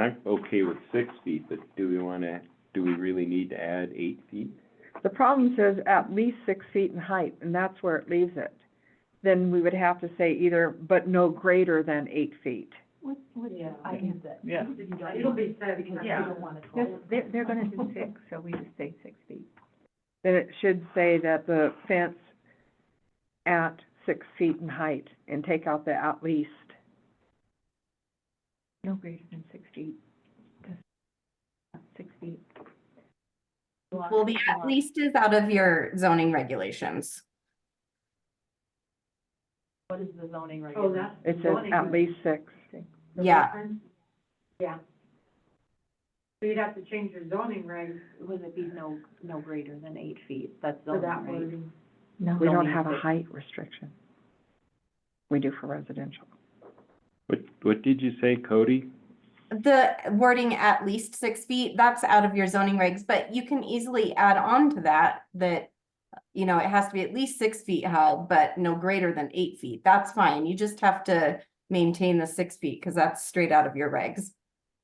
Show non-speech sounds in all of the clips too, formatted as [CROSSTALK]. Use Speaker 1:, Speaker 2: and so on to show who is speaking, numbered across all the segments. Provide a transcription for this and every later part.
Speaker 1: I'm okay with six feet, but do we wanna, do we really need to add eight feet?
Speaker 2: The problem says at least six feet in height, and that's where it leaves it. Then we would have to say either, but no greater than eight feet.
Speaker 3: What, what,
Speaker 4: Yeah.
Speaker 3: I get that.
Speaker 5: Yeah.
Speaker 4: It'll be said,
Speaker 3: Because you
Speaker 4: yeah.
Speaker 3: don't want to call
Speaker 4: Yes,
Speaker 3: it.
Speaker 4: They're, they're gonna
Speaker 6: [LAUGHS]
Speaker 4: do six, so we just say six feet.
Speaker 2: Then it should say that the fence at six feet in height, and take out the at least.
Speaker 4: No greater than six feet. Just, uh, Six feet.
Speaker 7: Well, the at least is out of your zoning regulations.
Speaker 3: What is the zoning
Speaker 4: Oh,
Speaker 3: regulation?
Speaker 4: that's.
Speaker 2: It says at least six.
Speaker 7: Yeah,
Speaker 3: Yeah.
Speaker 4: So you'd have to change your zoning regs
Speaker 3: Would it be no, no greater than eight feet? That's zoning, right?
Speaker 4: No.
Speaker 2: We don't have a height restriction. We do for residential.
Speaker 1: What, what did you say, Cody?
Speaker 7: the wording at least six feet, that's out of your zoning regs, but you can easily add on to that, that, you know, it has to be at least six feet high, but no greater than eight feet. That's fine. You just have to maintain the six feet because that's straight out of your regs.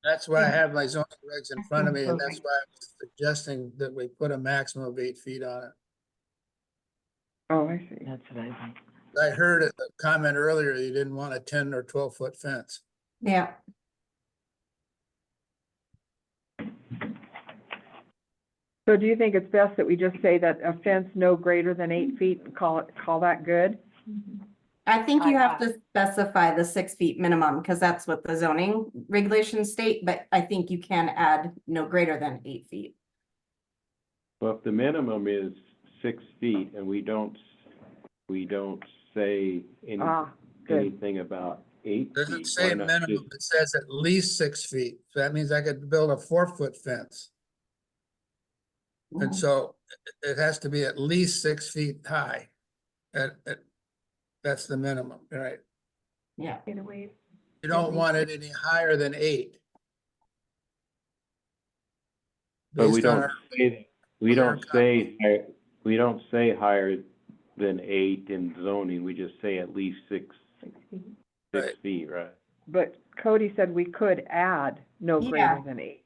Speaker 8: That's why I have my zoning regs in front of me, and that's
Speaker 4: Absolutely.
Speaker 8: why I was suggesting that we put a maximum of eight feet on it.
Speaker 2: Oh, I see.
Speaker 5: That's what I think.
Speaker 8: I heard a a comment earlier, you didn't want a ten or twelve foot fence.
Speaker 7: Yeah.
Speaker 2: So do you think it's best that we just say that a fence no greater than eight feet, and call it, call that good?
Speaker 4: Mhm.
Speaker 7: I think you
Speaker 3: I-
Speaker 7: have to specify the six feet minimum because that's what the zoning regulations state, but I think you can add no greater than eight feet.
Speaker 1: Well, if the minimum is six feet and we don't, s- we don't say any,
Speaker 2: Ah, good.
Speaker 1: anything about eight feet.
Speaker 8: Doesn't
Speaker 1: why
Speaker 8: say
Speaker 1: not
Speaker 8: minimum,
Speaker 1: just-
Speaker 8: it says at least six feet, so that means I could build a four foot fence. And so it- it has to be at least six feet high. At, at, that's the minimum, right?
Speaker 7: Yeah.
Speaker 4: Get away.
Speaker 8: You don't want it any higher than eight.
Speaker 1: But we
Speaker 8: Based on
Speaker 1: don't
Speaker 8: our-
Speaker 1: say, we
Speaker 8: with our
Speaker 1: don't say, hi- we don't say higher than eight in zoning, we just say at least six,
Speaker 4: Six feet.
Speaker 1: six
Speaker 8: Right.
Speaker 1: feet, right?
Speaker 2: But Cody said we could add no
Speaker 7: Yeah.
Speaker 2: greater than eight.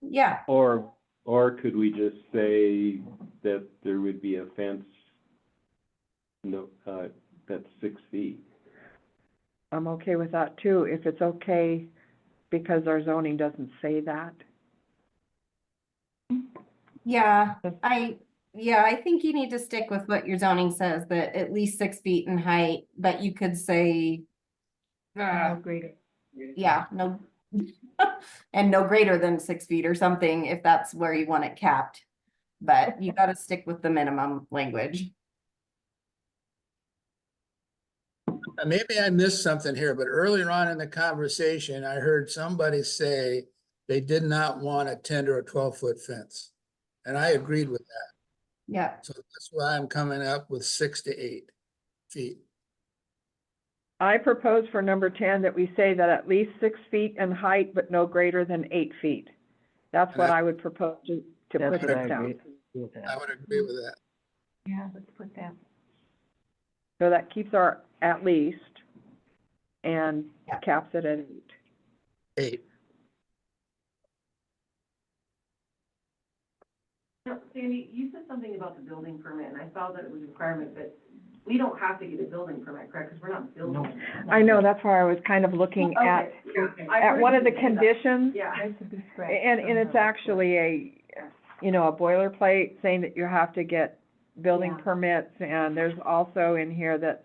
Speaker 7: Yeah,
Speaker 1: Or, or could we just say that there would be a fence, no, uh, that's six feet?
Speaker 2: I'm okay with that too, if it's okay, because our zoning doesn't say that.
Speaker 7: yeah, I, yeah, I think you need to stick with what your zoning says, that at least six feet in height, but you could say.
Speaker 4: No
Speaker 7: uh,
Speaker 4: greater.
Speaker 7: yeah, no. [LAUGHS] And no greater than six feet or something, if that's where you want it capped. But you gotta stick with the minimum language.
Speaker 8: Uh, Maybe I missed something here, but earlier on in the conversation, I heard somebody say they did not want a ten or a twelve foot fence. And I agreed with that,
Speaker 7: Yeah.
Speaker 8: so that's why I'm coming up with six to eight feet.
Speaker 2: I propose for number ten that we say that at least six feet in height, but no greater than eight feet. That's what I would propose to, to
Speaker 5: That's
Speaker 2: put
Speaker 5: what I
Speaker 2: this
Speaker 5: agree
Speaker 2: down.
Speaker 5: with that.
Speaker 8: I would agree with that.
Speaker 4: Yeah, let's put that.
Speaker 2: So that keeps our at least and
Speaker 7: Yeah.
Speaker 2: caps it at eight.
Speaker 8: Eight,
Speaker 6: Now, Sandy, you said something about the building permit, and I saw that it was a requirement, but we don't have to get a building permit, correct? Because we're not building.
Speaker 5: No.
Speaker 2: I know, that's why I was kind of looking
Speaker 6: Okay,
Speaker 2: at,
Speaker 6: yeah, I
Speaker 2: at
Speaker 6: heard
Speaker 2: one
Speaker 6: you
Speaker 2: of the
Speaker 6: say that.
Speaker 2: conditions.
Speaker 6: Yeah. Uh-huh.
Speaker 4: That should be scratched Uh-huh.
Speaker 2: And, and it's
Speaker 4: somehow.
Speaker 2: actually a, you know, a boilerplate saying that you have to get building
Speaker 4: Yeah.
Speaker 2: permits. And there's also in here that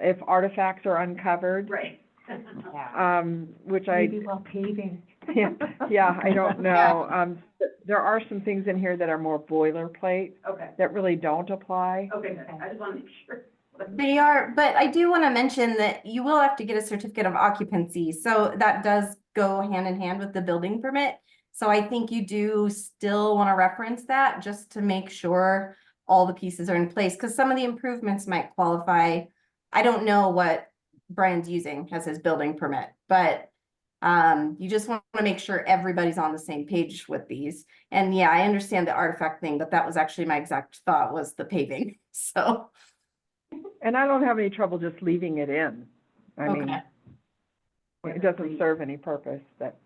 Speaker 2: if artifacts are uncovered,
Speaker 6: Right.
Speaker 4: [LAUGHS]
Speaker 2: um, which I,
Speaker 4: Maybe while paving.
Speaker 2: yeah, yeah,
Speaker 4: [LAUGHS]
Speaker 2: I
Speaker 6: [LAUGHS]
Speaker 2: don't know. Um, there are some things in here that are more boilerplate
Speaker 6: Okay,
Speaker 2: that really don't apply.
Speaker 6: okay, good. I just want to make sure.
Speaker 7: They are, but I do want to mention that you will have to get a certificate of occupancy, so that does go hand in hand with the building permit. So I think you do still want to reference that, just to make sure all the pieces are in place, because some of the improvements might qualify. I don't know what Brian's using as his building permit, but um, you just want to make sure everybody's on the same page with these. And yeah, I understand the artifact thing, but that was actually my exact thought was the paving, [LAUGHS] so.
Speaker 2: And I don't have any trouble just leaving it in. I mean,
Speaker 7: Okay.
Speaker 2: it doesn't serve any purpose that